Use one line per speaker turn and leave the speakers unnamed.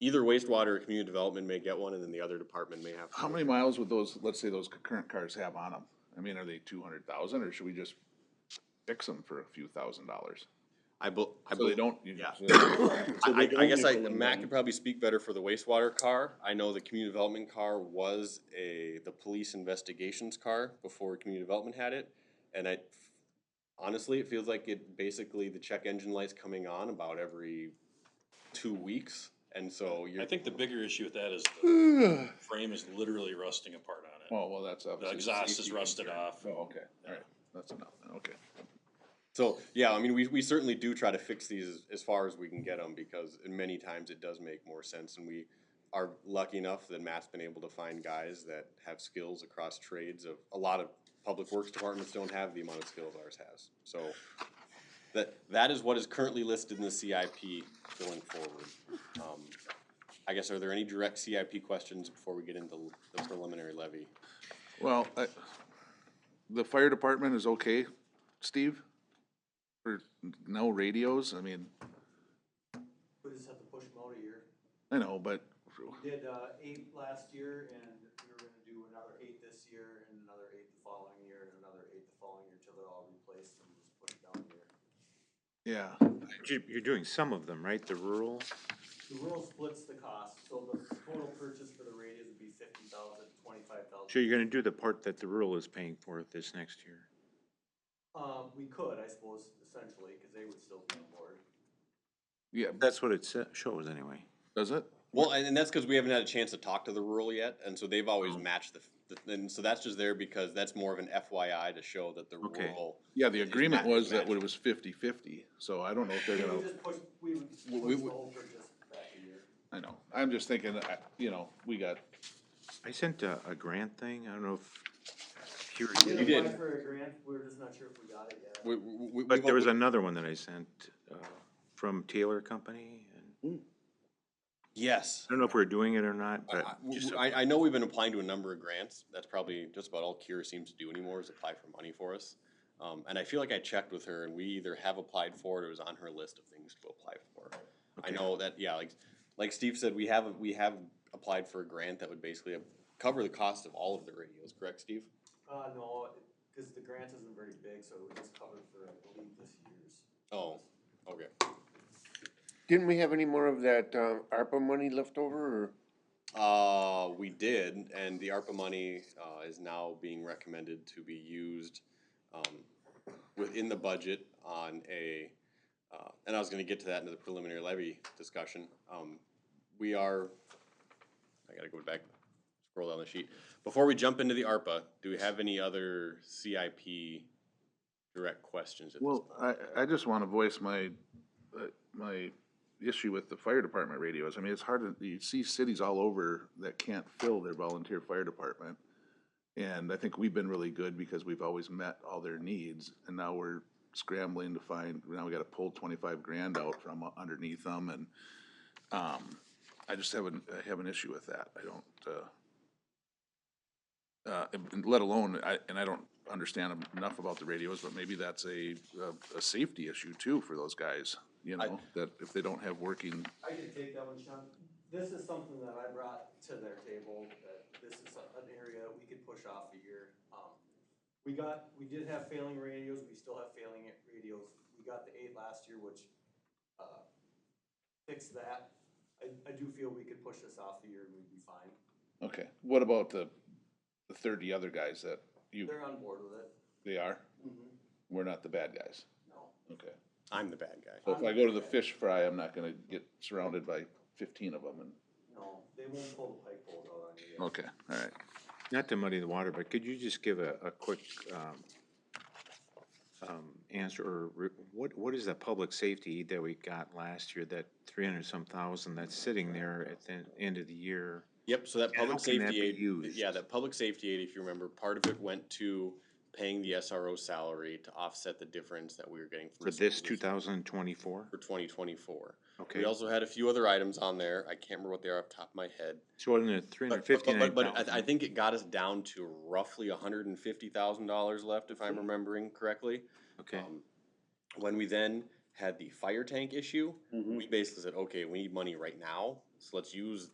either wastewater or community development may get one, and then the other department may have.
How many miles would those, let's say those current cars have on them? I mean, are they two hundred thousand or should we just fix them for a few thousand dollars?
I bel- I
So they
believe,
don't. you- "Oh,
Yeah.
So
I, I
they don't
guess I,
nickel and
Matt
dime.
could probably speak better for the wastewater car. I know the community development car was a, the police investigations car before community development had it. And I, honestly, it feels like it, basically the check engine light's coming on about every two weeks. And so you're.
I think the bigger issue with that is the frame is literally rusting apart on it.
Well, well, that's obviously.
exhaust is
safety
rusted
concern.
off.
Oh, okay, alright, that's enough, then, okay.
So, yeah, I mean, we, we certainly do try to fix these as, as far as we can get them because many times it does make more sense. And we are lucky enough that Matt's been able to find guys that have skills across trades of, a lot of public works departments don't have the amount of skills ours has. So that, that is what is currently listed in the CIP going forward. Um, I guess, are there any direct CIP questions before we get into the preliminary levy?
Well, I, the fire department is okay, Steve? For no radios, I mean,
We just have to push them out a year.
I know, but
We did, uh, eight last year and we were gonna do another eight this year and another eight the following year and another eight the following year till they're all replaced and just put it down here.
yeah,
You- You're doing some of them, right? The rural?
The rural splits the cost, so the total purchase for the radios would be fifty thousand, twenty-five
So
thousand.
you're gonna do the part that the rural is paying for this next year?
Um, we could, I suppose, essentially, cause they would still be on board.
yeah,
That's what it sa- shows anyway.
does it?
Well, and, and that's because we haven't had a chance to talk to the rural yet, and so they've
Oh.
always matched the, the, and so that's just there because that's more of an FYI to show that the
Okay.
rural.
Yeah, the agreement was that
match.
it was fifty-fifty, so I don't know if they're
We
gonna.
would just push, we would push
we
the
would-
whole purchase back a year.
I know, I'm just thinking, I- you know, we got,
I sent a, a grant thing. I don't know if you were
We
You did.
applied For a grant, we we're just not sure if we got it yet.
We, we, we-
But
we've
there was
al-
another one that I sent, uh, from Taylor Company. and I
Yes.
don't know if we're doing it or not,
I-
but just,
I, I know we've been applying to a number of grants. That's probably just about all Cure seems to do anymore is apply for money for us. Um, and I feel like I checked with her and we either have applied for it or it was on her list of things to apply for. I
Okay.
know that, yeah, like, like Steve said, we have, we have applied for a grant that would basically cover the cost of all of the radios, correct, Steve?
Uh, no, because the grant isn't very big, so it was covered for, I believe, this year's.
Oh, okay.
Didn't we have any more of that, uh, ARPA money left over or?
Uh, we did, and the ARPA money, uh, is now being recommended to be used, um, within the budget on a, uh, and I was gonna get to that in the preliminary levy discussion. Um, we are, I gotta go back, scroll down the sheet. Before we jump into the ARPA, do we have any other CIP direct questions at this
well,
point?
I, I just wanna voice my, uh, my issue with the fire department radios. I mean, it's hard to, you see cities all over that can't fill their volunteer fire department. And I think we've been really good because we've always met all their needs, and now we're scrambling to find, now we gotta pull twenty-five grand out from underneath them, and, um, I just have an, I have an issue with that, I don't, uh, uh, and- and let alone, I, and I don't understand enough about the radios, but maybe that's a, a, a safety issue too for those guys, you know, that if they don't have working,
I can take that one, Sean. This is something that I brought to their table, that this is an area we could push off a year. Um, We got, we did have failing radios, we still have failing radios. We got the eight last year, which, uh, fixed that. I, I do feel we could push this off a year and we'd be fine.
okay, what about the, the thirty other guys that you,
They're on board with it.
they are? We're not the bad guys,
No.
okay.
I'm the bad guy.
So if I go to the fish fry, I'm not gonna get surrounded by fifteen of them and,
No, they won't pull the pike pole out on you. yet.
okay, all right.
not to muddy the water, but could you just give a, a quick, um, um, answer or re- what, what is the public safety that we got last year, that three hundred some thousand that's sitting there at the end of the year?
Yep, so that
And how
public
can that
safety
be
aid,
used?
yeah, that public safety aid, if you remember, part of it went to paying the SRO salary to offset the difference that we were getting from.
For
the
this two
schools
thousand twenty-four?
For twenty twenty-four.
Okay,
We also had a few other items on there. I can't remember what they are off the top of my head.
so in the three
But,
hundred
but,
fifty-nine
but-
thousand.
but I, I think it got us down to roughly hundred and fifty thousand dollars left, if I'm remembering correctly.
Okay,
Um, When we then had the fire tank issue, we basically said, okay, we need money right now. So let's use